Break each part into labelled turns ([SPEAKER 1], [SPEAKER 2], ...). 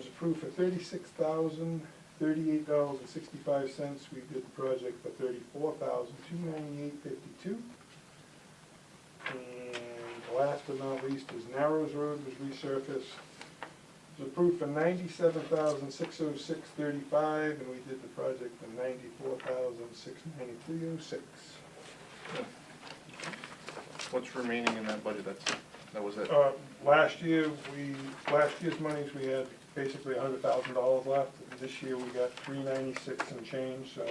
[SPEAKER 1] approved for thirty-six thousand, thirty-eight dollars and sixty-five cents. We did the project for thirty-four thousand, two ninety-eight fifty-two. And last but not least is Narrows Road was resurfaced. It was approved for ninety-seven thousand, six oh six thirty-five, and we did the project for ninety-four thousand, six ninety-three oh six.
[SPEAKER 2] What's remaining in that budget, that's, that was it?
[SPEAKER 1] Uh, last year, we, last year's monies, we had basically a hundred thousand dollars left. This year, we got three ninety-six and change, so,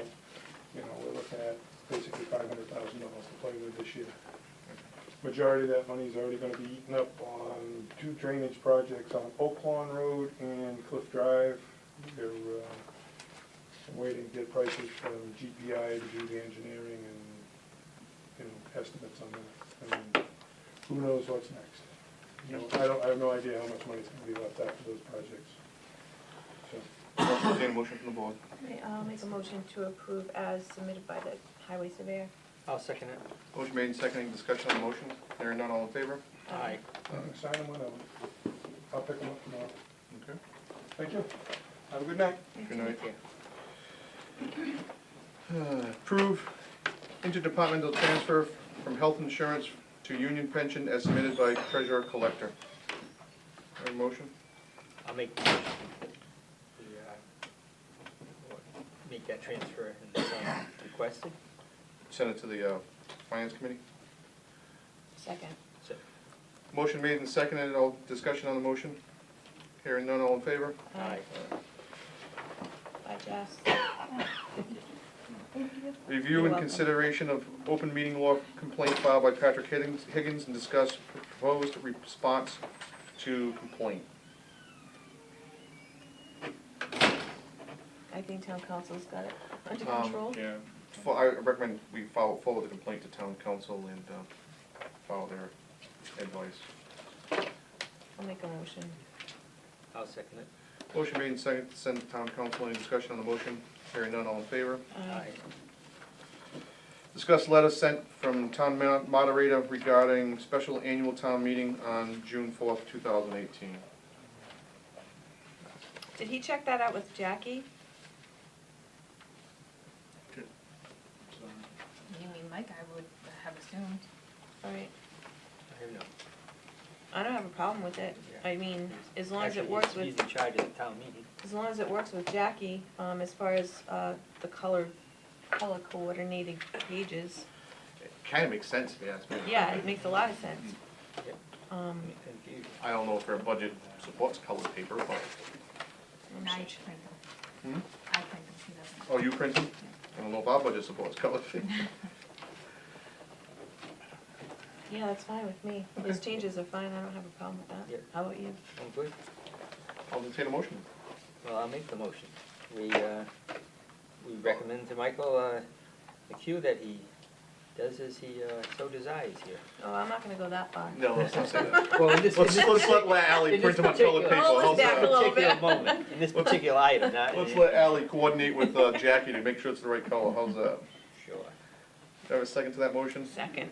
[SPEAKER 1] you know, we're looking at basically five hundred thousand dollars to play with this year. Majority of that money is already gonna be eaten up on two drainage projects on Oak Lawn Road and Cliff Drive. They're, uh, I'm waiting to get prices from GPI to do the engineering and, you know, estimates on that. And who knows what's next? You know, I don't, I have no idea how much money's gonna be left after those projects. So,
[SPEAKER 2] Entertained a motion from the board.
[SPEAKER 3] Okay, I'll make a motion to approve as submitted by the highway surveyor.
[SPEAKER 4] I'll second it.
[SPEAKER 2] Motion made and seconded, discussion on the motion, hearing none, all in favor?
[SPEAKER 4] Aye.
[SPEAKER 1] I'm gonna sign them when I'm, I'll pick them up tomorrow.
[SPEAKER 2] Okay.
[SPEAKER 1] Thank you. Have a good night.
[SPEAKER 2] Good night. Uh, Approve interdepartmental transfer from health insurance to union pension as submitted by treasurer collector. Have a motion?
[SPEAKER 4] I'll make the motion. We, uh, Make that transfer in the sum requested.
[SPEAKER 2] Send it to the, uh, finance committee.
[SPEAKER 3] Second.
[SPEAKER 4] So,
[SPEAKER 2] Motion made and seconded, all discussion on the motion, hearing none, all in favor?
[SPEAKER 4] Aye.
[SPEAKER 3] By Jess.
[SPEAKER 2] Review and
[SPEAKER 3] welcome.
[SPEAKER 2] consideration of open meeting law complaint filed by Patrick Higgins, Higgins and discuss proposed response to complaint.
[SPEAKER 3] I think town council's got it under
[SPEAKER 2] Um,
[SPEAKER 3] control.
[SPEAKER 2] Yeah. Fo- I recommend we follow, forward the complaint to town council and, uh, follow their advice.
[SPEAKER 3] I'll make a motion.
[SPEAKER 4] I'll second it.
[SPEAKER 2] Motion made and seconded to send to town council, any discussion on the motion, hearing none, all in favor?
[SPEAKER 3] Aye.
[SPEAKER 2] Discuss letter sent from town ma- moderator regarding special annual town meeting on June fourth, two thousand eighteen.
[SPEAKER 3] Did he check that out with Jackie?
[SPEAKER 5] You mean Mike, I would have assumed.
[SPEAKER 3] All right,
[SPEAKER 4] I have no.
[SPEAKER 3] I don't have a problem with it.
[SPEAKER 4] Yeah.
[SPEAKER 3] I mean, as long as it
[SPEAKER 4] Actually,
[SPEAKER 3] works
[SPEAKER 4] he's-
[SPEAKER 3] with,
[SPEAKER 4] He's in charge of the town meeting.
[SPEAKER 3] as long as it works with Jackie, um, as far as, uh, the color, color coordinated pages.
[SPEAKER 2] It Kinda makes sense if you ask me.
[SPEAKER 3] Yeah, it makes a lot of sense.
[SPEAKER 4] Yep.
[SPEAKER 3] Um,
[SPEAKER 4] Confused.
[SPEAKER 2] I don't know if our budget supports colored paper, but,
[SPEAKER 5] And I print them.
[SPEAKER 2] hmm?
[SPEAKER 5] I print them, he doesn't.
[SPEAKER 2] Oh, you print them? I don't know if our budget supports colored paper.
[SPEAKER 3] yeah, that's fine with me. Those changes are fine, I don't have a problem with
[SPEAKER 4] Yeah.
[SPEAKER 3] that. How about you?
[SPEAKER 4] I'm good.
[SPEAKER 2] I'll entertain a motion.
[SPEAKER 4] Well, I'll make the motion. We, uh, we recommend to Michael, uh, the cue that he does as he, uh, so desires here.
[SPEAKER 3] Oh, I'm not gonna go that far.
[SPEAKER 2] No, let's not say that.
[SPEAKER 4] Well, in this,
[SPEAKER 2] Let's, let's let let Ally
[SPEAKER 4] In
[SPEAKER 2] print
[SPEAKER 4] this
[SPEAKER 2] them on colored
[SPEAKER 4] particular-
[SPEAKER 2] paper.
[SPEAKER 3] Roll it
[SPEAKER 2] How's
[SPEAKER 3] back
[SPEAKER 2] that?
[SPEAKER 3] a little
[SPEAKER 4] particular
[SPEAKER 3] bit.
[SPEAKER 4] moment, in this particular item, not.
[SPEAKER 2] Let's let Ally coordinate with uh, Jackie to make sure it's the right color. How's that?
[SPEAKER 4] Sure.
[SPEAKER 2] Do I have a second to that motion?
[SPEAKER 3] Second.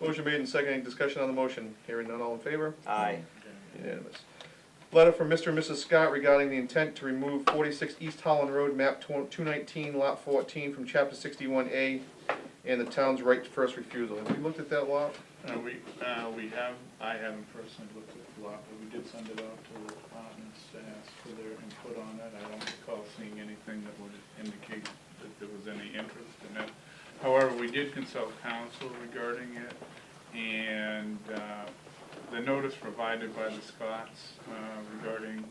[SPEAKER 2] Motion made and seconded. Discussion on the motion. Hearing none, all in favor?
[SPEAKER 4] Aye.
[SPEAKER 2] Unanimous. Letter from Mr. and Mrs. Scott regarding the intent to remove forty-six East Holland Road, map two nineteen, lot fourteen, from chapter sixty-one A, and the town's right to first refusal. Have we looked at that lot?
[SPEAKER 6] Uh, we, uh, we have, I haven't personally looked at the lot, but we did send it out to the departments to ask for their input on it. I don't recall seeing anything that would indicate that there was any interest in it. However, we did consult counsel regarding it, and, uh, the notice provided by the Scots, uh, regarding,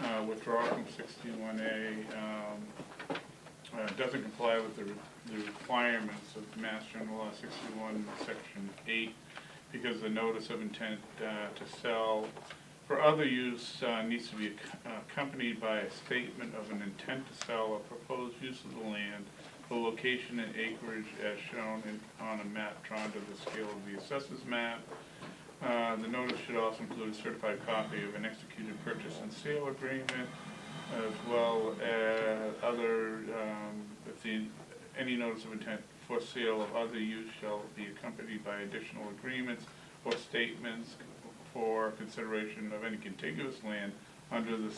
[SPEAKER 6] uh, withdrawal from sixty-one A, um, uh, doesn't comply with the re- the requirements of Mass General Law 61, Section 8, because the notice of intent uh, to sell for other use uh, needs to be ac- accompanied by a statement of an intent to sell a proposed use of the land, the location and acreage as shown in- on a map drawn to the scale of the assessors map. Uh, The notice should also include a certified copy of an executed purchase and sale agreement, as well as other, um, if the, any notice of intent for sale of other use shall be accompanied by additional agreements or statements for consideration of any contiguous land under the